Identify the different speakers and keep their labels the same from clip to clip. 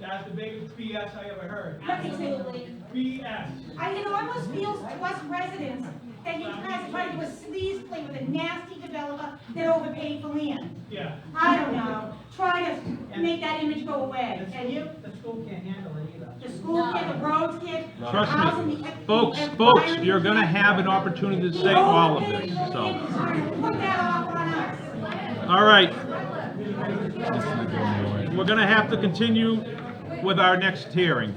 Speaker 1: That's the biggest BS I ever heard.
Speaker 2: Absolutely.
Speaker 1: BS.
Speaker 2: I, it almost feels to us residents that you guys tried to do a sleaze play with a nasty developer that overpaid for land.
Speaker 1: Yeah.
Speaker 2: I don't know, try to make that image go away, can you?
Speaker 1: The school can't handle it either.
Speaker 2: The school kid, the roads kid, the
Speaker 3: Trust me.
Speaker 2: housing, the.
Speaker 3: Folks,
Speaker 2: the
Speaker 3: folks,
Speaker 2: environment
Speaker 3: you're gonna
Speaker 2: kid.
Speaker 3: have an opportunity to
Speaker 2: The
Speaker 3: say all of
Speaker 2: overpaid
Speaker 3: this,
Speaker 2: for
Speaker 3: so.
Speaker 2: land is trying to Put that off on us.
Speaker 3: All right. We're gonna have to continue with our next hearing.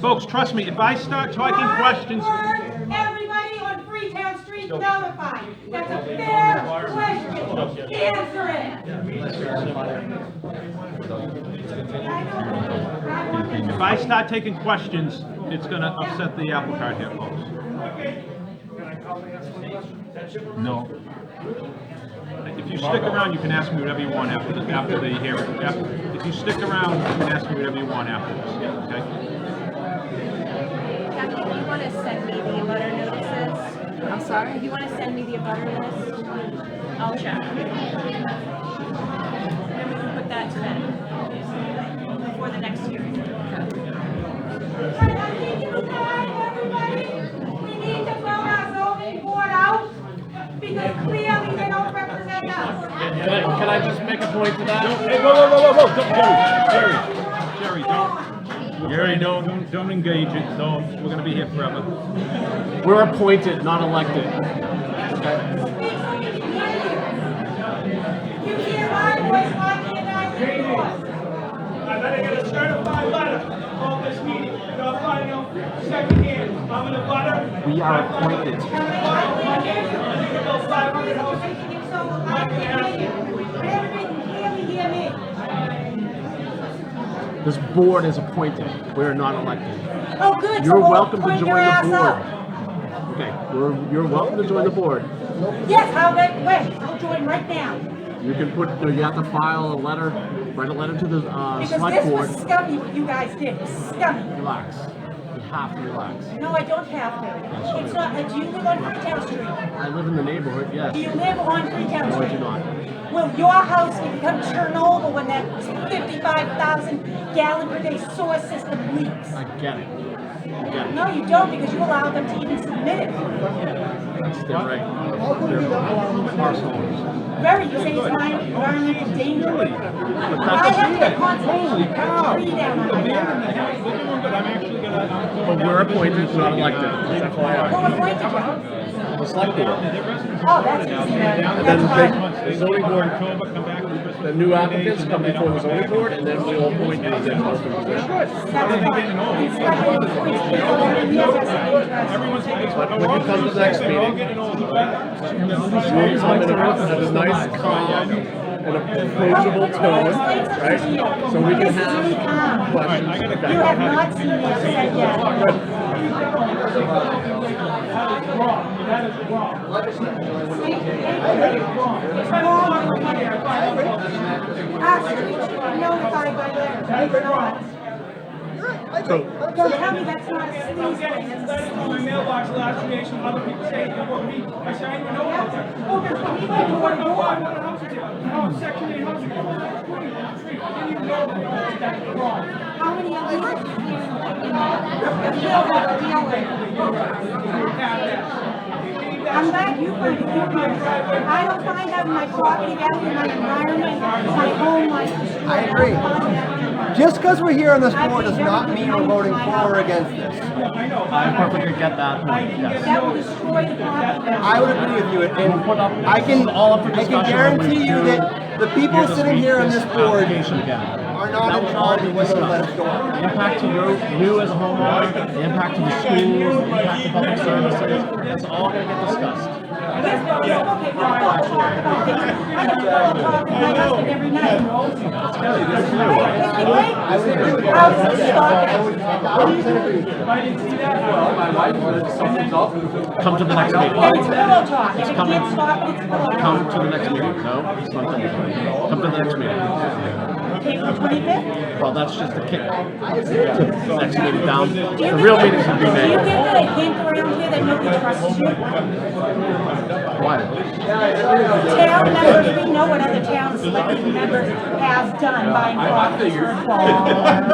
Speaker 3: Folks, trust me, if I start talking
Speaker 2: I
Speaker 3: questions,
Speaker 2: want Everybody on Freetown Street notified, that's a fair question, answer it. I know. I want them to-
Speaker 3: if I start taking questions, it's gonna upset the apple cart here, folks. No. If you stick around, you can ask me whatever you want after the, after the hearing. After- If you stick around, you can ask me whatever you want afterwards, okay?
Speaker 4: Kathy, if you want to send me the abutter notices, I'm sorry, if you want to send me the abutter list, I'll check. And we can put that to them before the next hearing.
Speaker 2: But I think it's time, everybody, we need to throw our zoning board out because clearly they don't represent us.
Speaker 5: Can I, can I just make a point to that?
Speaker 3: Hey, whoa, whoa, whoa, whoa, whoa, don't- Jerry, Jerry, Jerry, don't, Jerry, don't, don't- don't engage it, no, we're gonna be here forever.
Speaker 5: We're appointed, not elected.
Speaker 2: Speak so you can hear you. You hear my voice, why can't I hear yours?
Speaker 1: I better get a certified letter of this meeting, your final secondhand, I'm in a butter.
Speaker 5: We are appointed.
Speaker 2: I can't hear
Speaker 1: I
Speaker 2: you.
Speaker 1: think
Speaker 2: For
Speaker 1: about
Speaker 2: some
Speaker 1: five hundred
Speaker 2: reason,
Speaker 1: houses.
Speaker 2: you're making it so I can't hear you. But everybody can clearly hear me.
Speaker 5: This board is appointed. We are not elected.
Speaker 2: Oh, good.
Speaker 5: You're welcome to join the board. Okay, we're, you're welcome to join the board.
Speaker 2: Yes, I'll wait, wait, I'll join right now.
Speaker 5: You can put, no, you have to file a letter, write a letter to the, uh,
Speaker 2: Because
Speaker 5: select
Speaker 2: this
Speaker 5: board.
Speaker 2: was scummy what you guys did, scummy.
Speaker 5: Relax. You have to relax.
Speaker 2: No, I don't have to. It's not, uh, do you live on Freetown Street?
Speaker 5: I live in the neighborhood,
Speaker 2: Do you
Speaker 5: yes.
Speaker 2: live on Freetown
Speaker 5: No, I
Speaker 2: Street?
Speaker 5: do not.
Speaker 2: Will your house can become Chernobyl when that fifty-five thousand gallon per day sewer system leaks?
Speaker 5: I get it. I get it.
Speaker 2: No, you don't, because you allowed them to even submit it.
Speaker 5: That's their right. They're parcel owners.
Speaker 2: Very, you say it's my environmental danger. I have to
Speaker 3: Holy
Speaker 2: constantly
Speaker 3: cow!
Speaker 2: tree down on my yard.
Speaker 3: We're doing good. I'm actually gonna, I'm going
Speaker 5: But we're appointed, not elected.
Speaker 2: Who
Speaker 5: FYI.
Speaker 2: appointed you?
Speaker 5: The select board.
Speaker 2: Oh, that's easy,
Speaker 3: down
Speaker 2: that's
Speaker 5: Then
Speaker 2: fine.
Speaker 3: the
Speaker 5: the zoning board,
Speaker 3: October, come back for Christmas.
Speaker 5: the new applicants come before the zoning board, and then we'll appoint the executive committee.
Speaker 2: That's fine. It's like when you appoint people every year, it's interesting.
Speaker 3: Everyone's getting,
Speaker 5: When you come to the next
Speaker 3: they're all
Speaker 5: meeting,
Speaker 3: getting older, right?
Speaker 5: you'll come in a- in a nice, calm, and approachable tone, right? So we can have
Speaker 2: have.
Speaker 5: questions.
Speaker 2: You have not seen me upset yet. It's wrong. Actually, you should be notified by letter, it's not.
Speaker 5: So,
Speaker 2: Don't tell me that's not a sleaze thing, it's a
Speaker 1: Letters in my
Speaker 2: sleaze.
Speaker 1: mailbox last year, some other people saying, you know, me, I said, I didn't even know about that.
Speaker 2: Oh, there's people who
Speaker 1: What
Speaker 2: are
Speaker 1: about five
Speaker 2: more.
Speaker 1: hundred houses here? Oh, section eight houses, oh, that's twenty, that's three. I didn't even know that, that was that wrong.
Speaker 2: How many of you? I'm glad you find it humorous. I don't find out my property value, my environment, my home, my.
Speaker 6: I agree. Just because we're here on this board does not mean we're voting for or against this.
Speaker 5: I perfectly get that point, yes.
Speaker 2: That will destroy the property value.
Speaker 6: I would agree with you, and I can, I can guarantee you that the people sitting here on this board
Speaker 5: Application again.
Speaker 6: are not in charge of whether to let us go on.
Speaker 5: The impact to you, you as a homeowner, the impact to the schools, the impact to public services, it's all gonna get discussed.
Speaker 2: Yes, but, okay, we don't talk about this. I have to go and talk to my husband every night. I would agree with you. I was just
Speaker 5: Come to the next
Speaker 2: And
Speaker 5: meeting.
Speaker 2: it's pillow talk, and it can't stop, it's pillow talk.
Speaker 5: Come to the next meeting. No, it's not done. Come to the next meeting.
Speaker 2: April twenty-fifth?
Speaker 5: Well, that's just a kick. Yeah, Next meeting down.
Speaker 2: Do you
Speaker 5: The
Speaker 2: think
Speaker 5: real
Speaker 2: that-
Speaker 5: meeting should be
Speaker 2: Do you
Speaker 5: May.
Speaker 2: think that I came around here that nobody trusts you?
Speaker 5: Why?
Speaker 2: Town members, we know what other towns, like, members have done by law.